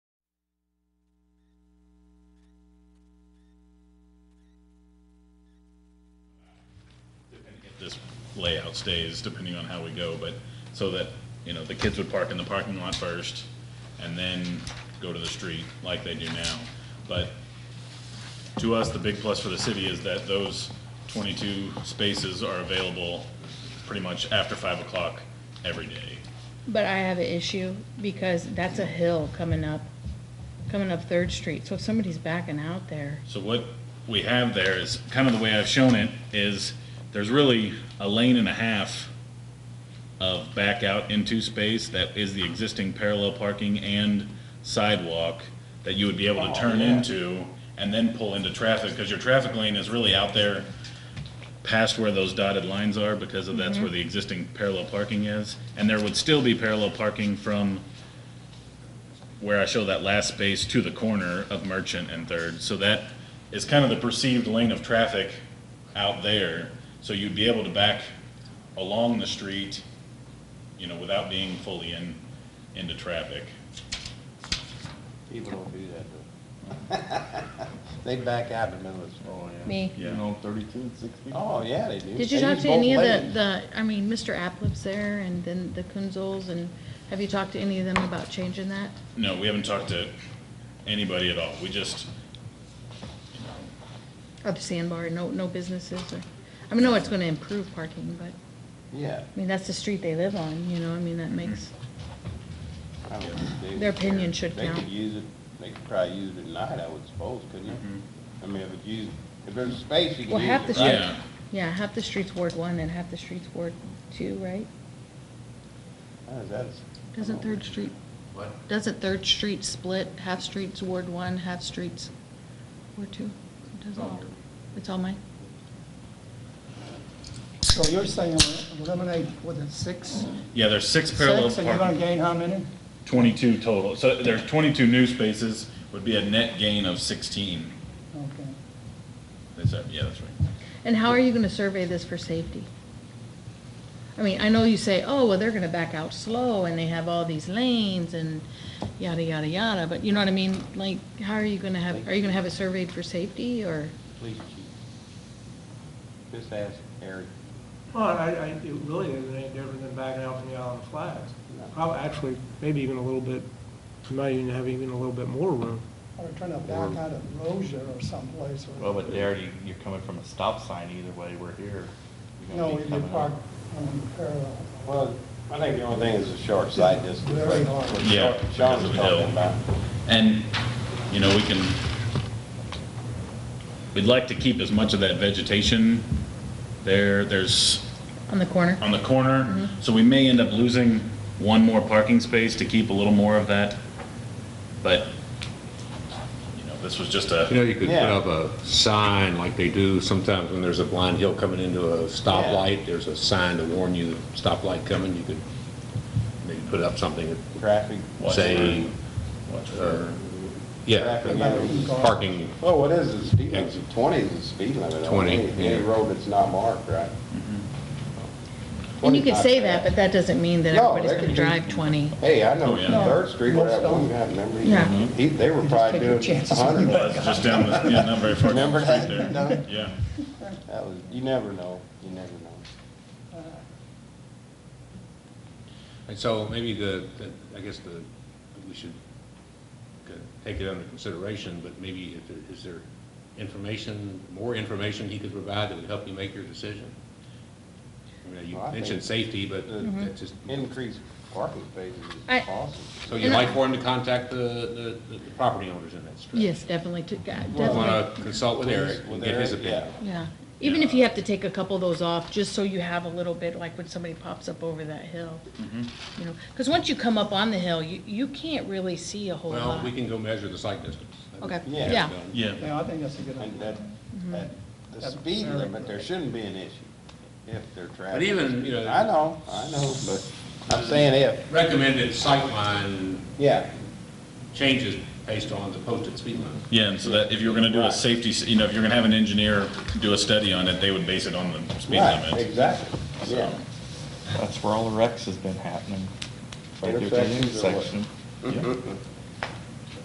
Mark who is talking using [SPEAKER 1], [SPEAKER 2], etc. [SPEAKER 1] this layout stays, depending on how we go, but, so that, you know, the kids would park in the parking lot first, and then go to the street like they do now. But to us, the big plus for the city is that those 22 spaces are available pretty much after 5 o'clock every day.
[SPEAKER 2] But I have an issue because that's a hill coming up, coming up Third Street. So if somebody's backing out there,
[SPEAKER 1] So what we have there is, kind of the way I've shown it, is there's really a lane and a half of back out into space that is the existing parallel parking and sidewalk that you would be able to turn into and then pull into traffic, because your traffic lane is really out there past where those dotted lines are, because of that's where the existing parallel parking is. And there would still be parallel parking from where I show that last space to the corner of Merchant and Third. So that is kind of the perceived lane of traffic out there. So you'd be able to back along the street, you know, without being fully in, into traffic.
[SPEAKER 3] People don't do that, though. They back out in the middle of the road.
[SPEAKER 2] me.
[SPEAKER 1] Yeah.
[SPEAKER 4] You know, thirty-two, sixty.
[SPEAKER 3] Oh, yeah, they do.
[SPEAKER 2] Did you
[SPEAKER 3] They
[SPEAKER 2] talk
[SPEAKER 3] use
[SPEAKER 2] to any of
[SPEAKER 3] both
[SPEAKER 2] the,
[SPEAKER 3] lanes.
[SPEAKER 2] the, I mean, Mr. Applip's there and then the Kunzels and have you talked to any of them about changing that?
[SPEAKER 1] No, we haven't talked to anybody at all. We just,
[SPEAKER 2] Or the sandbar, no, no businesses or, I mean, no, it's gonna improve parking, but, I
[SPEAKER 3] Yeah.
[SPEAKER 2] mean, that's the street they live on, you know, I mean, that makes,
[SPEAKER 3] I don't think they
[SPEAKER 2] Their
[SPEAKER 3] would
[SPEAKER 2] opinion
[SPEAKER 3] care.
[SPEAKER 2] should count.
[SPEAKER 3] They could use it, they could probably use it at night, I would suppose, couldn't you? I mean, if it's used, if there's space, you can
[SPEAKER 2] Well,
[SPEAKER 3] use it,
[SPEAKER 2] half the
[SPEAKER 3] right?
[SPEAKER 2] street-
[SPEAKER 1] yeah,
[SPEAKER 2] yeah, half the street's Ward One and half the street's Ward Two, right?
[SPEAKER 3] How is that?
[SPEAKER 2] Doesn't Third Street,
[SPEAKER 5] What?
[SPEAKER 2] doesn't Third Street split, half streets Ward One, half streets Ward Two? Does all, it's all mine?
[SPEAKER 6] So you're saying eliminate, what, the six?
[SPEAKER 1] yeah, there's six parallel
[SPEAKER 6] Six, and you're gonna
[SPEAKER 1] parking,
[SPEAKER 6] gain how many?
[SPEAKER 1] twenty-two total. So there's twenty-two new spaces, would be a net gain of sixteen.
[SPEAKER 6] Okay.
[SPEAKER 1] Is that, yeah, that's right.
[SPEAKER 2] And how are you gonna survey this for safety? I mean, I know you say, oh, well, they're gonna back out slow and they have all these lanes and yada, yada, yada, but you know what I mean? Like, how are you gonna have, are you gonna have it surveyed for safety or?
[SPEAKER 3] Police chief. Just ask Eric.
[SPEAKER 7] Well, I, I, it really isn't any different than backing out from the island flags. Probably, actually, maybe even a little bit, you might even have even a little bit more room.
[SPEAKER 6] Or trying to back out of Rozier or someplace. or-
[SPEAKER 4] Well, but there, you, you're coming from a stop sign either way, we're here. You're gonna
[SPEAKER 6] No,
[SPEAKER 4] be
[SPEAKER 6] if you
[SPEAKER 4] coming up.
[SPEAKER 6] park on parallel.
[SPEAKER 3] Well, I think the only thing is the short sightedness.
[SPEAKER 6] Very hard.
[SPEAKER 1] Yeah,
[SPEAKER 3] Sean
[SPEAKER 1] because of
[SPEAKER 3] was
[SPEAKER 1] the hill.
[SPEAKER 3] talking about.
[SPEAKER 1] And, you know, we can, we'd like to keep as much of that vegetation there, there's,
[SPEAKER 2] On the corner?
[SPEAKER 1] on the corner. So we may end up losing one more parking space to keep a little more of that. But, you know, this was just
[SPEAKER 8] You know,
[SPEAKER 1] a,
[SPEAKER 8] you could put
[SPEAKER 3] Yeah.
[SPEAKER 8] up a sign like they do sometimes when there's a blind hill coming into a stoplight, there's a sign to warn you, stoplight coming, you could maybe put up something,
[SPEAKER 3] Traffic.
[SPEAKER 1] Watch
[SPEAKER 8] say, uh, yeah,
[SPEAKER 3] Traffic lights.
[SPEAKER 8] parking,
[SPEAKER 3] Well, what is the speed limit? Twenty is the speed limit. on
[SPEAKER 8] 20,
[SPEAKER 3] any- Any
[SPEAKER 8] yeah.
[SPEAKER 3] road that's not marked, right?
[SPEAKER 2] Mm-hmm. And you
[SPEAKER 3] 20
[SPEAKER 2] could
[SPEAKER 3] not
[SPEAKER 2] say
[SPEAKER 3] bad.
[SPEAKER 2] that, but that doesn't mean that
[SPEAKER 3] No,
[SPEAKER 2] everybody's
[SPEAKER 3] they
[SPEAKER 2] gonna
[SPEAKER 3] could
[SPEAKER 2] drive
[SPEAKER 3] do-
[SPEAKER 2] twenty.
[SPEAKER 3] Hey, I
[SPEAKER 1] Oh,
[SPEAKER 3] know
[SPEAKER 1] yeah.
[SPEAKER 3] from Third Street where that
[SPEAKER 6] Most
[SPEAKER 3] one guy, remember? he-
[SPEAKER 2] Yeah.
[SPEAKER 3] He, they were
[SPEAKER 6] You just
[SPEAKER 3] probably
[SPEAKER 6] take your
[SPEAKER 3] doing
[SPEAKER 6] chances on
[SPEAKER 3] hundred.
[SPEAKER 6] the
[SPEAKER 1] well, it's just down the, yeah, not very far down the
[SPEAKER 3] Remember
[SPEAKER 1] street
[SPEAKER 3] that?
[SPEAKER 1] there. Yeah.
[SPEAKER 3] That was, you never know, you never know.
[SPEAKER 8] and so maybe the, the- I guess the, we should uh, take it under consideration, but maybe if there, is there information, more information he could provide that would help you make your decision? I mean, You
[SPEAKER 3] Well, I
[SPEAKER 8] mentioned
[SPEAKER 3] think-
[SPEAKER 8] safety, but that's just.
[SPEAKER 3] Increase parking spaces
[SPEAKER 2] Mm-hmm. I-
[SPEAKER 3] is awesome.
[SPEAKER 8] So you'd like for him to contact the, the, the property owners in that stretch?
[SPEAKER 2] Yes, definitely, to- uh, definitely.
[SPEAKER 8] You want to consult with Eric and get his
[SPEAKER 3] With Eric,
[SPEAKER 8] opinion?
[SPEAKER 2] Yeah, even if you have to take a couple of those off, just so you have a little bit, like when somebody pops up over that hill.
[SPEAKER 8] Mm-hmm.
[SPEAKER 2] You know, because once you come up on the hill, you, you can't really see a whole
[SPEAKER 8] Well,
[SPEAKER 2] lot.
[SPEAKER 8] we can go measure the site distance.
[SPEAKER 2] Okay,
[SPEAKER 3] Yeah.
[SPEAKER 2] yeah,
[SPEAKER 1] Yeah.
[SPEAKER 6] Yeah, I think that's a good
[SPEAKER 3] And
[SPEAKER 6] idea.
[SPEAKER 3] that,
[SPEAKER 2] Mm-hmm.
[SPEAKER 3] that, the
[SPEAKER 6] That's
[SPEAKER 3] speed
[SPEAKER 6] very
[SPEAKER 3] limit,
[SPEAKER 6] good.
[SPEAKER 3] there shouldn't be an issue if they're traveling.
[SPEAKER 8] But even, you know-
[SPEAKER 3] I know, I know, but I'm saying if,
[SPEAKER 8] Recommended sightline
[SPEAKER 3] yeah,
[SPEAKER 8] changes based on the posted speed limit.
[SPEAKER 1] Yeah, and so that, if you were gonna do a
[SPEAKER 3] Right.
[SPEAKER 1] safety, s- you know, if you're gonna have an engineer do a study on it, they would base it on the speed
[SPEAKER 3] right,
[SPEAKER 1] limit.
[SPEAKER 3] exactly, yeah.
[SPEAKER 1] So-
[SPEAKER 4] That's where all the wrecks has been happening. Right there at the
[SPEAKER 3] Intersections or what?
[SPEAKER 4] intersection.